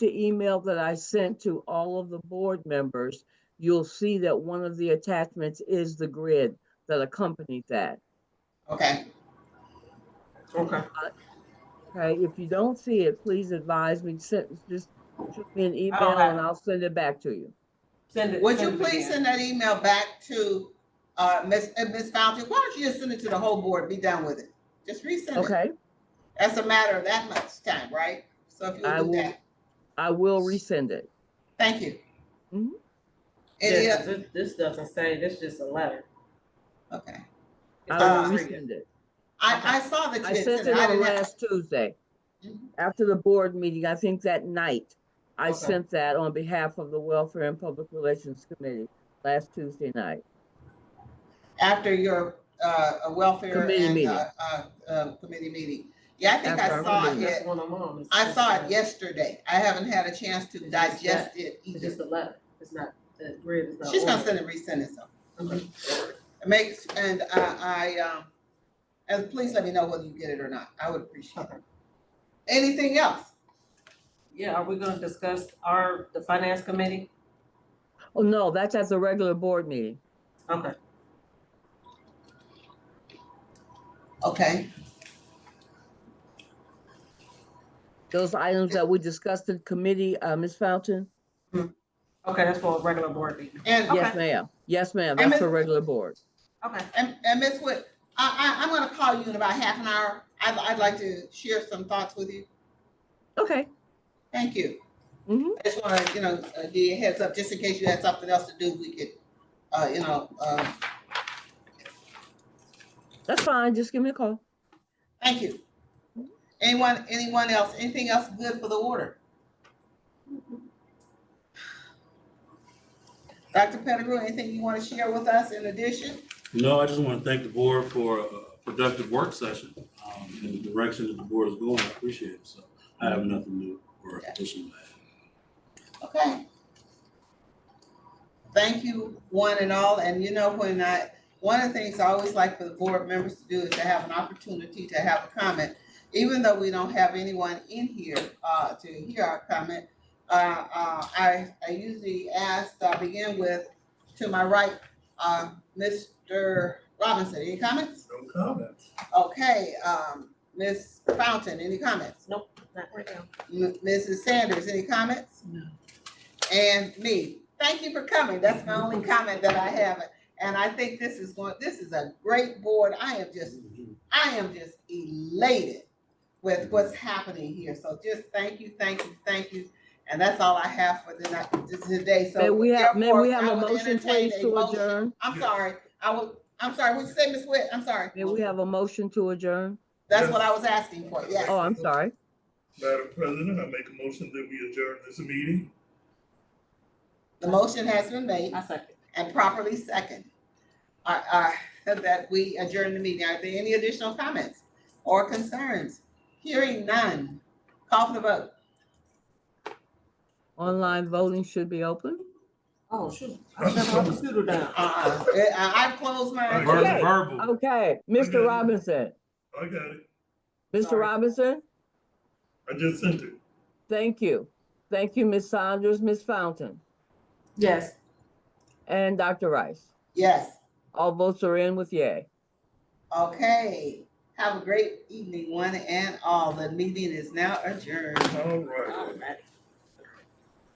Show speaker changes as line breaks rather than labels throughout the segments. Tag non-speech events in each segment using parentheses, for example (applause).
the email that I sent to all of the board members, you'll see that one of the attachments is the grid that accompanied that.
Okay,
Okay,
Okay, if you don't see it, please advise me, send, just shoot me an email
have
and
it.
I'll send it back to you.
send it.
would you
send it
please
again.
send that email back to, uh, Ms., uh, Ms. Fountain? Why don't you just send it to the whole board, be done with it? Just resend it.
Okay,
That's a matter of that much time, right? So if
I
you do
will.
that,
I will resend it.
thank you.
Mhm.
Any
Yeah, 'cause
other,
this, this doesn't say, this is just a letter.
okay. Uh,
It's
I will
not free.
resend it.
I, I saw that
I
you had sent
sent
it.
it
I
on
didn't have,
last Tuesday.
Mhm.
After the board meeting, I think that night, I
Okay.
sent that on behalf of the Welfare and Public Relations Committee last Tuesday night.
after your, uh, uh, welfare
Committee
and,
meeting.
uh, uh, uh, committee meeting. Yeah, I think
After
I
our
saw
committee.
it.
That's one I'm on. It's
I
just
saw
a-
it yesterday. I haven't had a chance to
It's just
digest it
It's
either.
just a letter. It's not, the grid is not.
She's gonna
ordered.
send it, resend it, so.
Okay.
It Makes, and I, I, um, and please let me know whether you get it or not. I would appreciate it. Anything else?
Yeah, are we gonna discuss our, the finance committee?
Oh, no, that's at the regular board meeting.
Okay,
Okay,
Those items that we discussed in committee, uh, Ms. Fountain?
okay, that's for a regular board meeting.
and,
Okay.
Yes, ma'am. Yes, ma'am.
And
That's
Ms.
for regular board.
Okay,
and, and Ms. Wood, I, I, I'm gonna call you in about half an hour. I'd, I'd like to share some thoughts with you.
Okay.
Thank you.
Mhm.
I just wanna, you know, uh, give you a heads up, just in case you had something else to do, we could, uh, you know, uh,
That's fine. Just give me a call.
Thank you. Anyone, anyone else, anything else good for the order? Dr. Pettigrew, anything you want to share with us in addition?
No, I just want to thank the board for a productive work session um, and the direction that the board is going. I appreciate it. So I have nothing new or additional. to add.
Okay. Thank you, one and all, and you know, when I, one of the things I always like for the board members to do is to have an opportunity to have a comment. Even though we don't have anyone in here, uh, to hear our comment, uh, uh, I, I usually ask, I begin with, to my right, uh, Mr. Robinson, any comments?
No comments.
Okay, um, Ms. Fountain, any comments?
not right now.
M- Mrs. Sanders, any comments?
No.
And me, thank you for coming. That's my only comment that I have. And I think this is going, this is a great board. I am just, I am just elated with what's happening here. So just thank you, thank you, thank you. And that's all I have for the night, this- today. So.
May we have, may we
therefore,
have
I
a
would
motion
entertain
please
a
to
motion.
adjourn?
I'm sorry. I will, I'm sorry. What'd you say, Ms. Witt? I'm sorry.
May we have a motion to adjourn?
That's what I was asking for. Yes.
Oh, I'm sorry.
Madam President, I make a motion that we adjourn this meeting.
The motion has been made.
I second.
and properly second. Uh, uh, (laughs) that we adjourn the meeting. Are there any additional comments or concerns? Hearing none. Call for the vote.
Online voting should be open.
Oh, shoot, I shut my computer down.
Uh, uh, I've closed mine.
Okay.
Verbal, verbal.
Okay, Oh, Mr.
Okay.
Robinson,
I got it.
Mr.
Sorry.
Robinson,
I just sent it.
thank you. Thank you, Ms. Saunders, Ms. Fountain,
Yes.
and Dr. Rice.
Yes,
All votes are in with yay.
okay. Have a great evening, one and all. The meeting is now adjourned.
All right.
All right.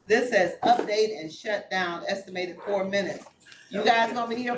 This says update and shut down, estimated four minutes. You guys gonna be here